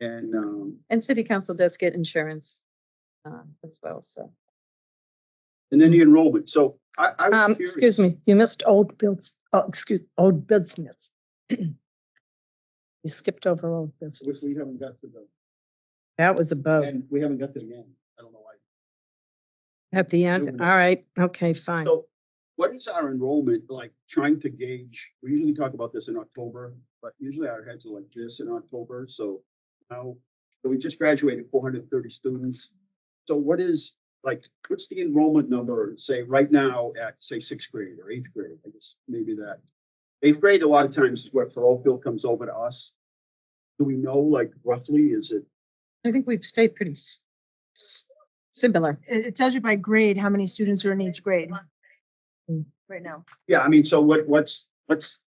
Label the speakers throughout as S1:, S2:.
S1: And, um,
S2: And city council does get insurance um, as well, so.
S1: and then the enrollment. So I, I
S3: Um,
S1: was curious.
S3: excuse me, you missed old builds, oh, excuse, old business. You skipped over old
S1: Which
S3: business.
S1: we haven't got to the,
S3: That was above,
S1: and we haven't got to the end. I don't know why.
S3: at the end.
S1: Nobody.
S3: All right, okay, fine.
S1: So what is our enrollment like trying to gauge? We usually talk about this in October, but usually our heads are like this in October. So now, so we just graduated four hundred and thirty students. So what is, like, what's the enrollment number, say, right now at, say, sixth grade or eighth grade? I guess maybe that. Eighth grade, a lot of times is where parochial comes over to us. Do we know, like, roughly, is it
S2: I think we've stayed pretty s- s- similar.
S4: It, it tells you by grade how many students are in each grade.
S3: Mm.
S4: Right now.
S1: Yeah, I mean, so what, what's, what's?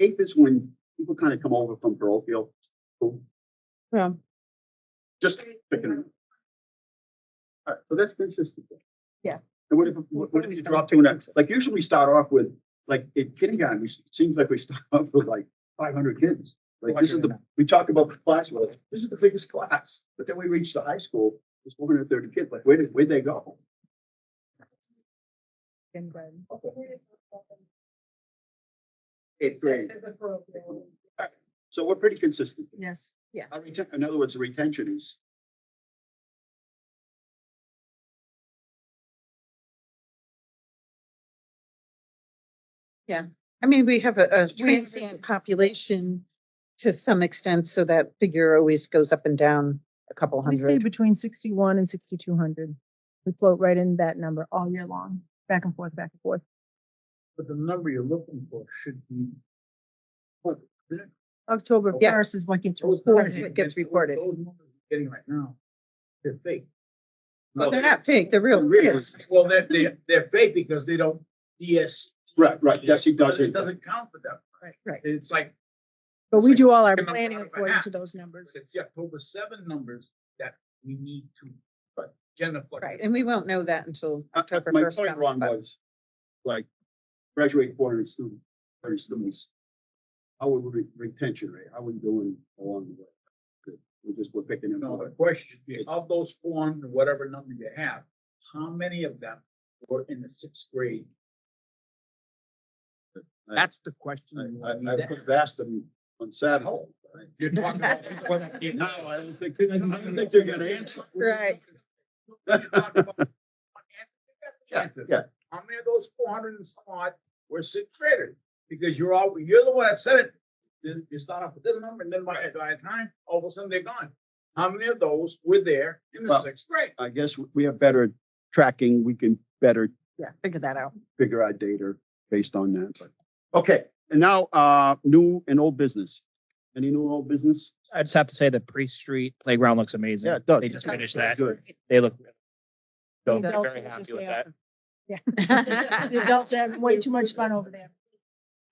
S1: Eighth is when people kind of come over from parochial, so
S2: Yeah.
S1: just picking them. All right, so that's consistent. then.
S4: Yeah.
S1: And what if, what what if you drop to next? Like usually we start off with, like in kindergarten, we- it seems like we start off with like five hundred kids. Like this is the, we talk about the class, well, this is the biggest class, but then we reach the high school, there's one hundred and thirty kids, like where did, where'd they go? Eighth grade. So we're pretty consistent.
S4: Yes.
S2: Yeah.
S1: Our reten- in other words, the retention is.
S2: I mean, we have a, a
S4: we have-
S2: transient population to some extent, so that figure always goes up and down a couple
S4: We stay
S2: hundred.
S4: between sixty-one and sixty-two hundred. We float right in that number all year long, back and forth, back and forth.
S1: But the number you're looking for should be.
S4: October
S2: Yeah.
S4: first is what gets
S2: That's
S4: reported.
S2: what gets reported.
S1: Getting right now, they're fake.
S2: But they're not fake, they're real kids.
S5: Well, they're, they're, they're fake because they don't DS.
S1: Right, right, yes, it
S5: It
S1: doesn't,
S5: doesn't count for them.
S4: Right, right.
S5: It's like,
S4: But we do all our
S5: Number
S4: planning
S5: out of a
S4: according
S5: hat.
S4: to those numbers.
S5: it's the October seven numbers that we need to, but Jennifer.
S2: Right, and we won't know that until
S1: Uh,
S2: October
S1: my
S2: first.
S1: point Ron was, like, graduate four hundred students, thirty students. How would we, retention rate, how are we doing along the way? Good. We just, we're picking them
S5: No,
S1: up.
S5: the question should be, of those four hundred, whatever number you have, how many of them were in the sixth grade? That's the question. you
S1: I,
S5: need
S1: I
S5: to
S1: could have
S5: ask.
S1: asked them on Saturday.
S5: You're talking about people that came
S1: No,
S5: out.
S1: I don't think, I don't think they're gonna answer.
S2: Right.
S5: You're talking about-
S1: Yeah, yeah,
S5: How many of those four hundred and some odd were sixth graders? Because you're all, you're the one that said it. Then you start off with this number and then by, by the time, all of a sudden they're gone. How many of those were there in the
S1: Well-
S5: sixth grade?
S1: I guess we have better tracking, we can better
S2: Yeah, figure that out.
S1: figure out data based on that, but, okay, and now, uh, new and old business. Any new and old business?
S6: I just have to say the pre-street playground looks amazing.
S1: Yeah, it does.
S6: They just
S1: Yeah,
S6: finished
S1: that's
S6: that.
S1: good.
S6: They look. So
S4: It does.
S6: very happy with that.
S4: The adults are having way too much fun over there.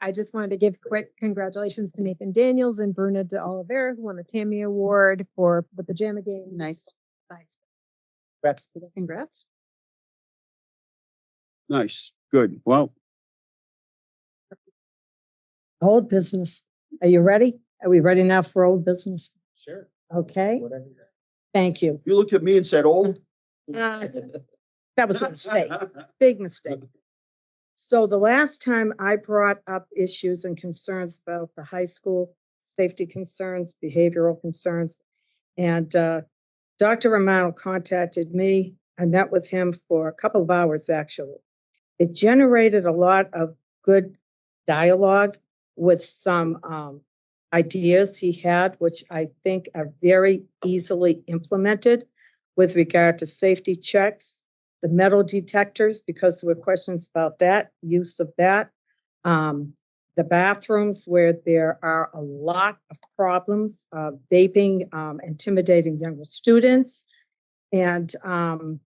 S7: I just wanted to give quick congratulations to Nathan Daniels and Bruna de Oliveira, who won the Tammy Award for the pajama game.
S2: Nice.
S7: Nice.
S2: Congrats. Congrats.
S1: Nice, good, well,
S3: Old business. Are you ready? Are we ready now for old business?
S5: Sure.
S3: Okay,
S5: Whatever.
S3: thank you.
S1: you looked at me and said old.
S3: Uh,
S2: Um,
S3: That was a mistake. big mistake. So the last time I brought up issues and concerns about the high school, safety concerns, behavioral concerns. And uh, Dr. Romano contacted me. I met with him for a couple of hours, actually. It generated a lot of good dialogue with some um, ideas he had, which I think are very easily implemented with regard to safety checks, the metal detectors, because there were questions about that, use of that. Um, the bathrooms where there are a lot of problems, uh, vaping, um, intimidating younger students. And, um,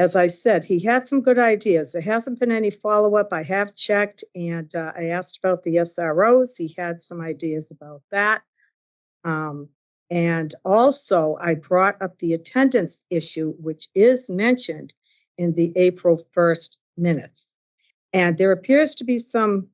S3: as I said, he had some good ideas. There hasn't been any follow-up. I have checked and, uh, I asked about the SROs. He had some ideas about that. Um, and also I brought up the attendance issue, which is mentioned in the April 1st minutes. And there appears to be some